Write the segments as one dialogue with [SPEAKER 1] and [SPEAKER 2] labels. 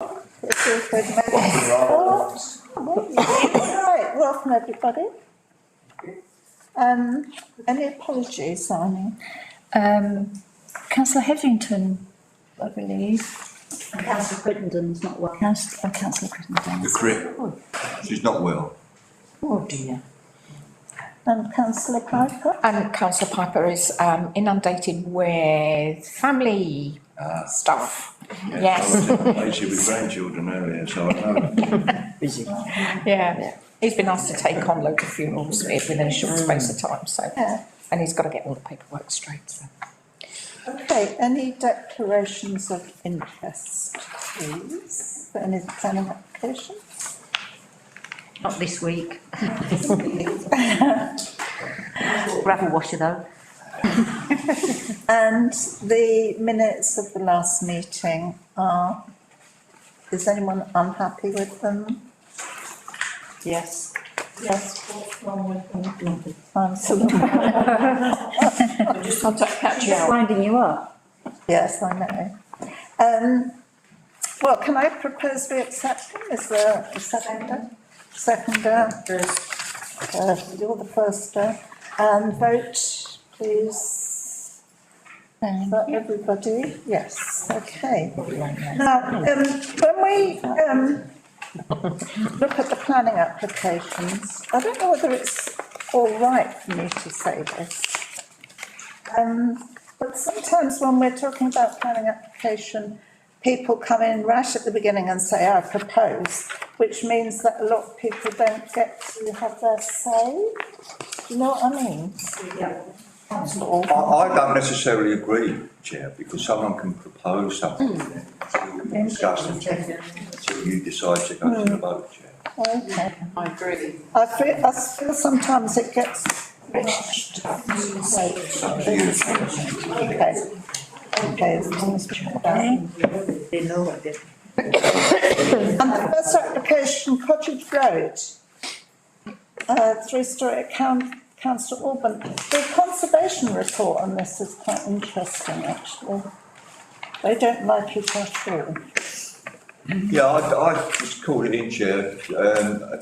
[SPEAKER 1] It's also the minutes. Oh, Right, welcome everybody. Um, any apologies, Simon?
[SPEAKER 2] Um, councillor Hetherington, I believe,
[SPEAKER 3] Councillor Crittenden's not well.
[SPEAKER 2] councillor, oh, councillor Crittenden.
[SPEAKER 4] The crit. She's not well.
[SPEAKER 3] Oh dear.
[SPEAKER 1] And councillor Piper?
[SPEAKER 5] And councillor Piper is um inundated with family uh, stuff. Yes,
[SPEAKER 4] I was in Malaysia with grandchildren earlier, so I know.
[SPEAKER 5] yeah. He's been asked to take on loads of funerals within a short space of time, so,
[SPEAKER 1] Yeah,
[SPEAKER 5] and he's got to get all the paperwork straight, so.
[SPEAKER 1] okay, any declarations of interest, please? For Any planning application?
[SPEAKER 3] Not this week. Gravel washer though.
[SPEAKER 1] And the minutes of the last meeting are, is anyone unhappy with them?
[SPEAKER 5] Yes.
[SPEAKER 1] Yes.
[SPEAKER 3] I'm
[SPEAKER 1] I'm sorry,
[SPEAKER 5] Just contact catch
[SPEAKER 3] just winding you up.
[SPEAKER 1] yes, I know. Um, well, can I propose we accept them? Is there a seconder? Seconder? Uh, you're the first, uh, and vote, please. Is that everybody? Yes, okay. Now, um, when we, um, look at the planning applications, I don't know whether it's all right for me to say this. Um, but sometimes when we're talking about planning application, people come in rash at the beginning and say, I propose, which means that a lot of people don't get to have their say. You know what I mean?
[SPEAKER 4] I, I don't necessarily agree, Chair, because someone can propose something and then we discuss it until you decide to go to the vote, Chair.
[SPEAKER 1] Okay. I agree. I feel, I feel sometimes it gets rushed.
[SPEAKER 4] It's up to you, Chair.
[SPEAKER 1] Okay. Okay. as long as we have that.
[SPEAKER 3] They know what they're.
[SPEAKER 1] And the first application, Cottage Road, uh, three-story account, councillor Orban. The conservation report on this is quite interesting, actually. They don't like it at all.
[SPEAKER 4] Yeah, I, I just called it in, Chair. Um,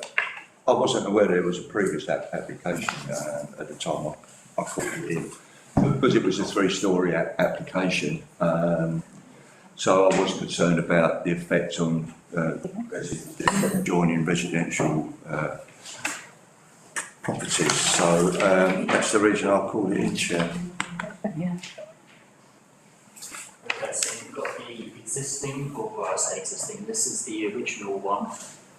[SPEAKER 4] I wasn't aware there was a previous app- application, uh, at the time I, I called it in. Because it was a three-story a- application, um, so I was concerned about the effect on, uh, resi- the adjoining residential, uh, properties. So, um, that's the reason I called it in, Chair.
[SPEAKER 6] Okay, so you've got the existing, or I say existing, this is the original one.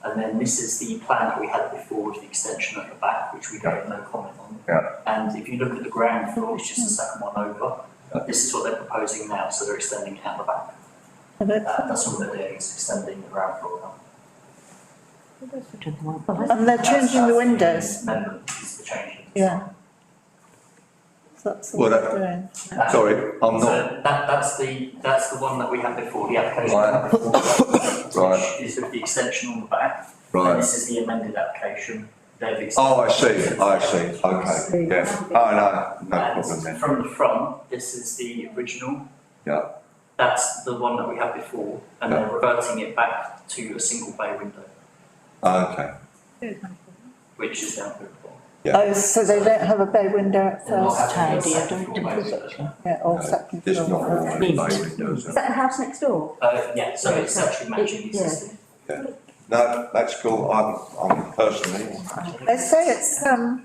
[SPEAKER 6] And then this is the plan that we had before with the extension at the back, which we don't know comment on.
[SPEAKER 4] Yeah.
[SPEAKER 6] And if you look at the ground floor, it's just the second one over. This is what they're proposing now, so they're extending it out the back.
[SPEAKER 1] And it-
[SPEAKER 6] Uh, that's all they're doing, is extending the ground floor now.
[SPEAKER 1] And they're changing the
[SPEAKER 6] That's-
[SPEAKER 1] windows.
[SPEAKER 6] Amendment is the change.
[SPEAKER 1] Yeah. That's
[SPEAKER 4] Well,
[SPEAKER 1] what they're
[SPEAKER 4] that-
[SPEAKER 1] doing.
[SPEAKER 6] Uh,
[SPEAKER 4] Sorry, I'm
[SPEAKER 6] So
[SPEAKER 4] not,
[SPEAKER 6] that, that's the, that's the one that we had before, the application.
[SPEAKER 4] Right. Right.
[SPEAKER 6] Which is with the extension on the back. And
[SPEAKER 4] right.
[SPEAKER 6] this is the amended application, they've extended.
[SPEAKER 4] Oh, I see, I see, okay, yeah. Oh, no, no problem then.
[SPEAKER 6] And from the front, this is the original.
[SPEAKER 4] Yeah.
[SPEAKER 6] That's the one that we had before, and they're reverting it back to a single bay window,
[SPEAKER 4] Ah, Okay.
[SPEAKER 6] which is now applicable.
[SPEAKER 4] Yeah.
[SPEAKER 1] Oh, so they don't have a bay window at
[SPEAKER 6] They're not
[SPEAKER 1] first,
[SPEAKER 6] having a
[SPEAKER 3] tidy, I
[SPEAKER 6] second
[SPEAKER 3] don't
[SPEAKER 6] floor bay
[SPEAKER 3] think
[SPEAKER 6] window.
[SPEAKER 1] yeah, or second
[SPEAKER 4] There's not
[SPEAKER 1] floor.
[SPEAKER 4] all any bay windows.
[SPEAKER 3] Is that the house next door?
[SPEAKER 6] Uh, yeah, so it's actually matching the
[SPEAKER 3] Yeah.
[SPEAKER 6] existing.
[SPEAKER 4] No, that's cool, I'm, I'm personally,
[SPEAKER 1] They say it's, um,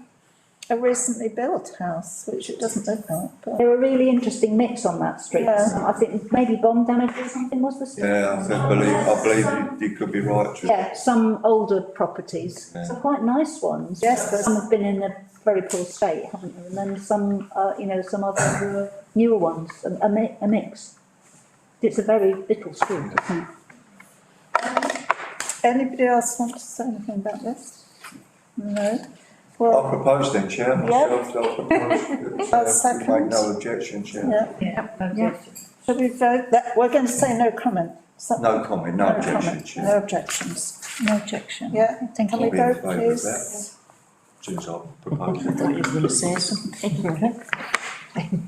[SPEAKER 1] a recently built house, which it doesn't look like, but.
[SPEAKER 3] They're a really interesting mix on that street.
[SPEAKER 1] Yeah.
[SPEAKER 3] I think maybe bomb damage or something was the. street?
[SPEAKER 4] yeah, I think- believe, I believe you, you could be right, Ju-
[SPEAKER 3] Yeah, some older properties,
[SPEAKER 4] Yeah.
[SPEAKER 3] some quite nice ones.
[SPEAKER 1] Yes, there's-
[SPEAKER 3] Some have been in a very poor state, haven't they? And then some, uh, you know, some other were newer ones, a, a mi- a mix. It's a very little street, isn't it?
[SPEAKER 1] Anybody else want to say anything about this? No?
[SPEAKER 4] I'll
[SPEAKER 1] Well,
[SPEAKER 4] propose then, Chair, myself, I'll propose.
[SPEAKER 1] I'll
[SPEAKER 4] Chair,
[SPEAKER 1] second.
[SPEAKER 4] you Make no objection, Chair.
[SPEAKER 1] yeah, shall we vote that, we're going to say no comment. Is that-
[SPEAKER 4] No comment, no objection,
[SPEAKER 1] comment, No
[SPEAKER 4] Chair,
[SPEAKER 1] objections,
[SPEAKER 2] No objection.
[SPEAKER 1] yeah,
[SPEAKER 2] Thank
[SPEAKER 1] can
[SPEAKER 2] you.
[SPEAKER 1] we
[SPEAKER 4] I'll be in
[SPEAKER 1] vote
[SPEAKER 4] favour of
[SPEAKER 1] please?
[SPEAKER 4] since I've proposed. it.
[SPEAKER 2] you were gonna say something.